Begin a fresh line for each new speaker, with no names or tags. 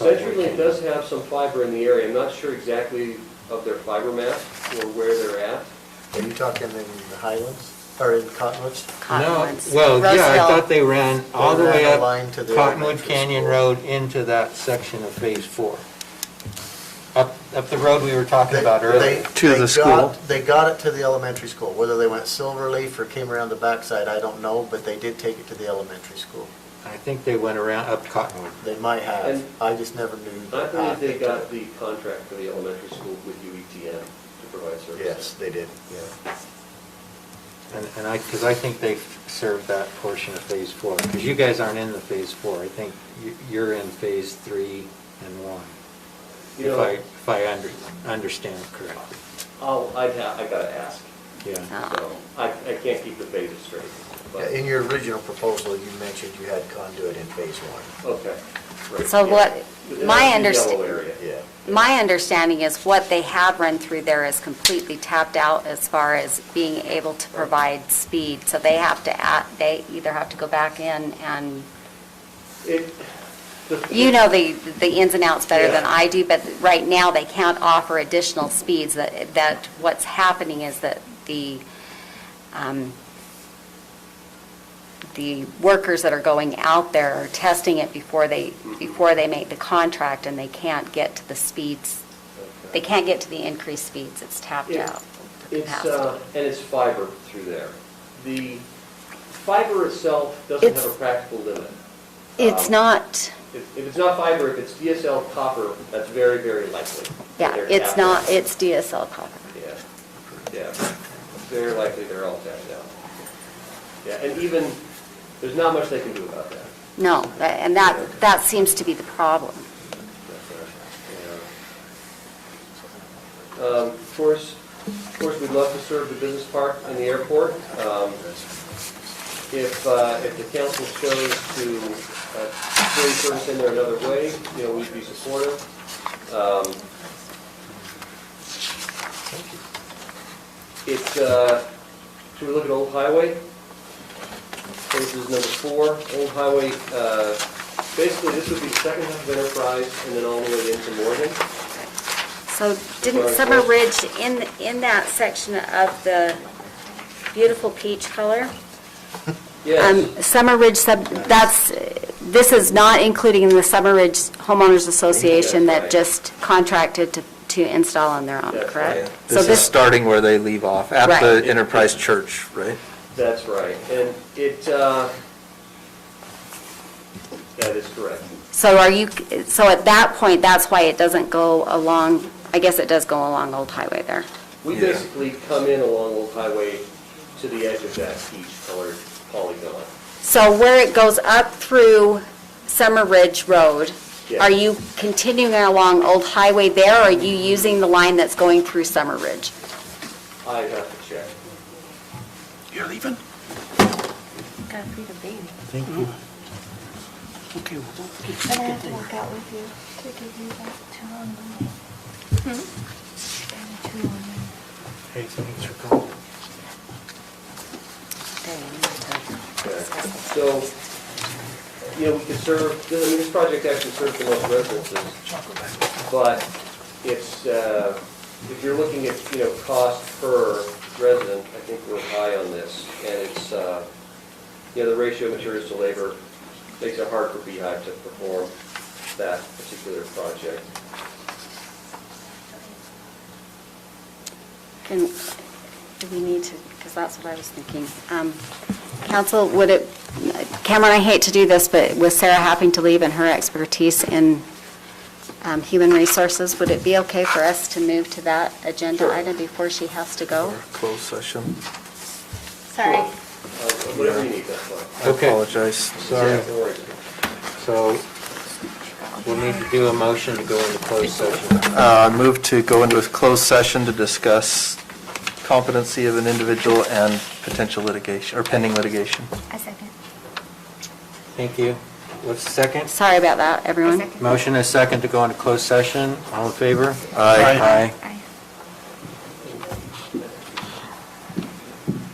Ledgerlink does have some fiber in the area, I'm not sure exactly of their fiber map or where they're at.
Are you talking in the Highlands, or in Cottonwoods?
No,
Cottonwoods.
well, yeah, I
Roseville.
thought they ran all the
ran
way
a
up
line to the
Cottonwood
elementary
Canyon
school.
Road into that section of Phase Four. Up, up the road we were talking about
They-
earlier.
they-
To
they
the
got-
school.
They got it to the elementary school, whether they went Silverleaf or came around the backside, I don't know, but they did take it to the elementary school.
I think they went around up Cottonwood.
They might have,
And-
I just never knew.
I
the
believe
path
they got
took.
the contract for the elementary school with UETM to provide services.
Yes, they did, yeah.
And and I, because I think they served that portion of Phase Four. Because you guys aren't in the Phase Four. I think you- you're in Phase Three and One.
You
If
know-
I, if I under- understand correctly.
I'll, I'd have, Oh, I gotta ask,
Yeah.
Oh.
so, I, I can't keep the phases straight, but,
Yeah, In your original proposal, you mentioned you had conduit in phase one,
okay. right,
So
yeah.
what-
But
my
that's the
underst-
Yellow area.
yeah.
My understanding is what they have run through there is completely tapped out as far as being able to provide speed. So they have to, add- they either have to go back in and,
It- the-
you know the, the ins and outs better than
Yeah.
I do, but right now they can't offer additional speeds. That, that what's happening is that the, um, the workers that are going out there are testing it before they,
Mhm.
before they make the contract and they can't get to the speeds
Okay.
they can't get to the increased speeds, it's tapped
Yeah.
out. for
It's, uh,
capacity.
and it's fiber through there. The fiber itself doesn't have a
It's-
practical limit.
It's
Um,
not,
If if it's not fiber, if it's DSL copper, that's very, very likely.
yeah,
They're
it's
tapped
not,
out.
it's DSL copper.
Yeah, yeah, very likely they're all tapped out. Yeah, and even, there's not much they can do about that.
No, tha- and that, that seems to be the problem.
Yeah. Um, Of course, of course, we'd love to serve the business park and the airport. Um, If, uh, if the council chose to uh, bring service in there another way, you know, we'd be supportive. Um, It's, uh, should we look at Old Highway? This is number four, Old Highway, uh, basically, this would be the second half of Enterprise and then all the way into Morgan.
So didn't
Right.
Summer Ridge, in, in that section of the beautiful peach color?
Yes,
Um, Summer Ridge sub, that's, this is not including the Summer Ridge Homeowners Association
That's
that
right.
just contracted to, to install on their own,
That's
correct?
right.
So
This is starting where they leave off, at
Right.
the Enterprise Church, right?
that's right, and it, uh, that is correct.
So are you, so at that point, that's why it doesn't go along, I guess it does go along Old Highway there.
We
Yeah.
basically come in along Old Highway to the edge of that peach colored polygon.
So where it goes up through Summer Ridge Road,
Yeah.
are you continuing along Old Highway there, or are you using the line that's going through Summer Ridge?
I have to check.
You're leaving?
Gotta feed a baby.
Thank you.
Okay, well, don't get
And I have to work out with you to give you that two on Monday. And a two on Monday.
Hey, thanks for calling.
So, you know, we could serve, I mean, this project actually serves the most residences.
chocolate back.
But it's, uh, if you're looking at, you know, cost per resident, I think we're high on this. And it's, uh, you know, the ratio of materials to labor makes it hard for Beehive to perform that particular project.
And do we need to, because that's what I was thinking. Um, Council, would it, Cameron, I hate to do this, but with Sarah having to leave and her expertise in um, human resources, would it be okay for us to move to that agenda item before she has to go?
Or Closed session.
Sorry.
Uh, Whatever you need, that's fine.
I
Okay.
apologize.
Sorry.
Yeah, don't worry.
So we'll need to do a motion to go into closed session.
Uh, Move to go into a closed session to discuss competency of an individual and potential litigation, or pending litigation.
A second.
Thank you. What's the second?
Sorry about that, everyone.
second.
Motion is second to go into closed session. All in favor?
Aye.
Aye.
Aye.